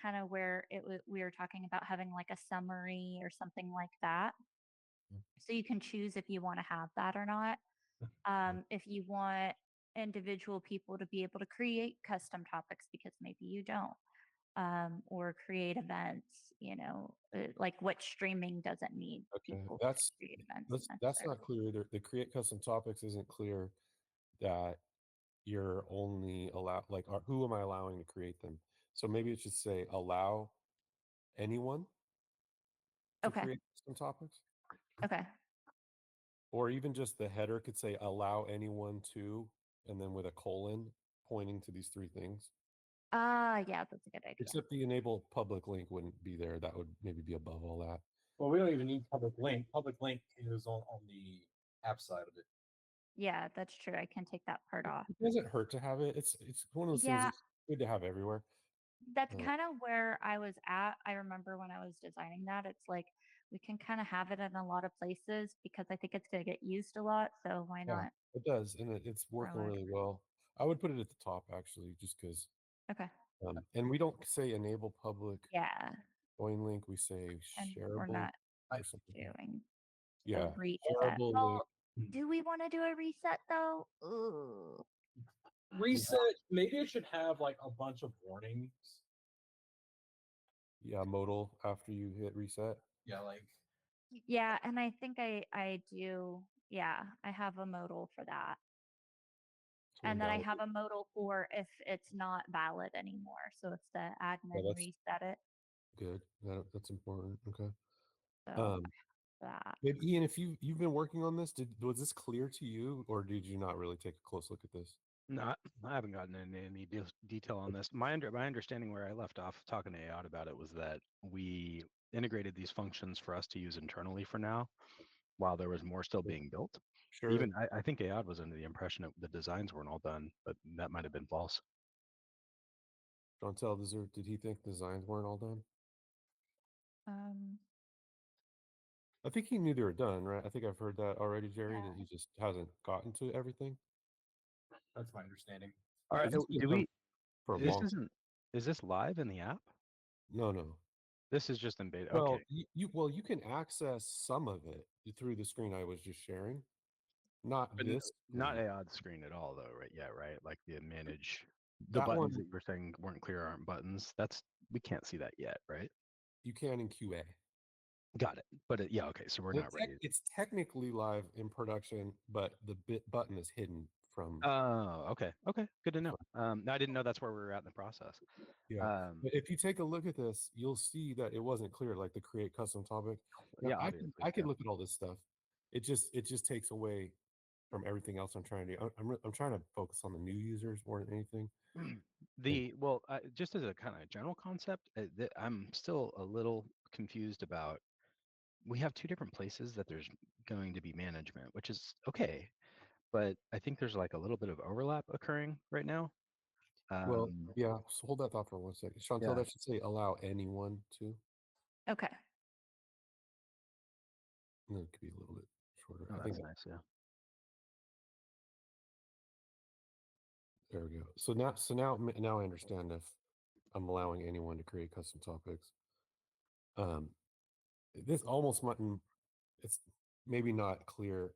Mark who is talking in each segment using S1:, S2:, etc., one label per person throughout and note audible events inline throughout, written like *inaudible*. S1: kind of where it w- we were talking about having like a summary or something like that.
S2: Mm. Uh,
S1: So you can choose if you want to have that or not. Um, if you want individual people to be able to create custom topics because maybe you don't, um, or create events, you know, uh, like what streaming doesn't need.
S2: Okay,
S1: people to
S2: that's-
S1: create events
S2: That's that's not
S1: necessarily.
S2: clear either. The create custom topics isn't clear that you're only allow like are, who am I allowing to create them? So maybe it should say allow anyone to
S1: Okay.
S2: create custom topics,
S1: Okay.
S2: or even just the header could say allow anyone to, and then with a colon pointing to these three things.
S1: Ah, yeah, that's a good idea.
S2: Except the enable public link wouldn't be there. That would maybe be above all that.
S3: Well, we don't even need public link. Public link is on, on the app side of it.
S1: Yeah, that's true. I can take that part off.
S2: It doesn't hurt to have it. It's it's one of those
S1: Yeah.
S2: things that's good to have everywhere.
S1: That's
S2: Uh,
S1: kind of where I was at. I remember when I was designing that, it's like we can kind of have it in a lot of places because I think it's going to get used a lot. So why
S2: Yeah.
S1: not?
S2: It does, and it, it's working
S1: like-
S2: really well. I would put it at the top actually, just because.
S1: Okay.
S2: Um, and we don't say enable public
S1: Yeah.
S2: join link. We say
S1: And we're
S2: shareable.
S1: not
S3: I-
S2: or something.
S1: doing a
S2: Yeah. Hmm.
S1: reset.
S2: shareable
S1: Well,
S3: link.
S1: do we want to do a reset though? Ooh.
S4: Mm-hmm.
S3: Reset. Maybe it should have like a bunch of warnings.
S2: Yeah, modal after you hit reset.
S3: Yeah, like
S1: Yeah, and I think I I do. Yeah, I have a modal for that.
S2: so
S1: And then I
S2: invalid-
S1: have a modal for if it's not valid anymore. So if the admin
S2: that's-
S1: reset it,
S2: good. That, that's important. Okay.
S1: so
S2: Um,
S1: that.
S2: but Ian, if you you've been working on this, did was this clear to you, or did you not really take a close look at this?
S4: No, I- I haven't gotten into any de- detail on this. My under, my understanding where I left off talking to Aod about it was that we integrated these functions for us to use internally for now, while there was more still being built.
S2: Sure.
S4: Even I, I think Aod was under the impression that the designs weren't all done, but that might have been false.
S2: Chantel, does there- did he think designs weren't all done?
S1: Um,
S2: I think he knew they were done, right? I think I've heard that already, Jerry,
S1: Yeah.
S2: that he just hasn't gotten to everything
S3: that's my understanding.
S4: All right,
S2: this
S4: do
S2: is
S4: do
S2: done
S4: we?
S2: for a
S4: This
S2: long.
S4: isn't. Is this live in the app?
S2: No, no.
S4: This is just in beta.
S2: Well,
S4: okay.
S2: you, you well, you can access some of it through the screen I was just sharing. Not
S4: But n-
S2: this.
S4: Not
S2: screen.
S4: Aod's screen at all, though, right? Yeah, right. Like the manage. The
S2: that
S4: buttons
S2: one.
S4: that you were saying weren't clear aren't buttons. That's we can't see that yet, right?
S2: You can in QA.
S4: Got it. But it, yeah, okay. So we're
S2: Well,
S4: not
S2: tec-
S4: ready.
S2: It's technically live in production, but the bit button is hidden from.
S4: Oh, okay. Okay. Good to know. Um, no, I didn't know that's where we were at in the process.
S2: Yeah,
S4: Um,
S2: But if you take a look at this, you'll see that it wasn't clear. Like the create custom topic. Now,
S4: yeah,
S2: I can
S4: obviously,
S2: I can
S4: yeah.
S2: look at all this stuff. It just it just takes away from everything else I'm trying to do. I- I'm re- I'm trying to focus on the new users more than anything.
S4: *clears throat* The well, uh, just as a kind of general concept, uh, th- I'm still a little confused about. We have two different places that there's going to be management, which is okay, but I think there's like a little bit of overlap occurring right now. Um,
S2: well, yeah. So hold that thought for one second, Chantel.
S4: yeah.
S2: That should say allow anyone to.
S1: okay.
S2: No, it could be a little bit shorter.
S4: oh,
S2: I think
S4: that's nice. Yeah.
S2: there we go. So now so now m- now I understand if I'm allowing anyone to create custom topics. Um, this almost might m- it's maybe not clear.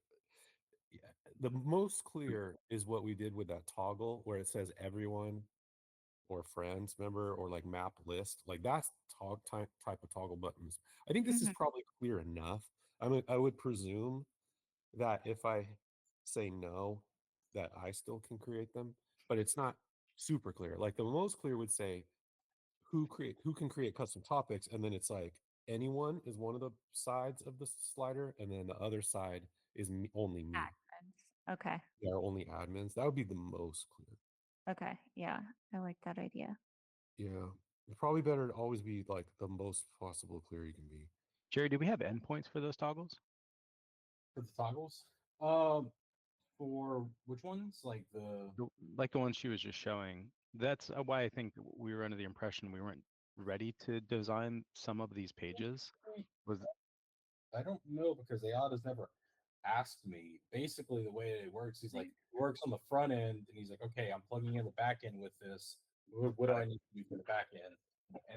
S2: Yeah, The most clear is what we did with that toggle where it says everyone or friends member or like map list. Like that's tog type type of toggle buttons. I think this is
S1: Mhm.
S2: probably clear enough. I mean, I would presume that if I say no, that I still can create them, but it's not super clear. Like the most clear would say who create who can create custom topics, and then it's like anyone is one of the sides of the slider, and then the other side is me, only me.
S1: Admins. Okay.
S2: There are only admins. That would be the most clear.
S1: Okay. Yeah. I like that idea.
S2: Yeah, it's probably better to always be like the most possible clear you can be.
S4: Jerry, do we have endpoints for those toggles?
S3: For the toggles. Um for which ones? Like the
S4: the- like the one she was just showing. That's uh, why I think w- we were under the impression we weren't ready to design some of these pages.
S3: I don't know because Ayada's never asked me. Basically, the way it works, he's like works on the front end, and he's like, okay, I'm plugging in the back end with this. What, what do I need to do for the back end? And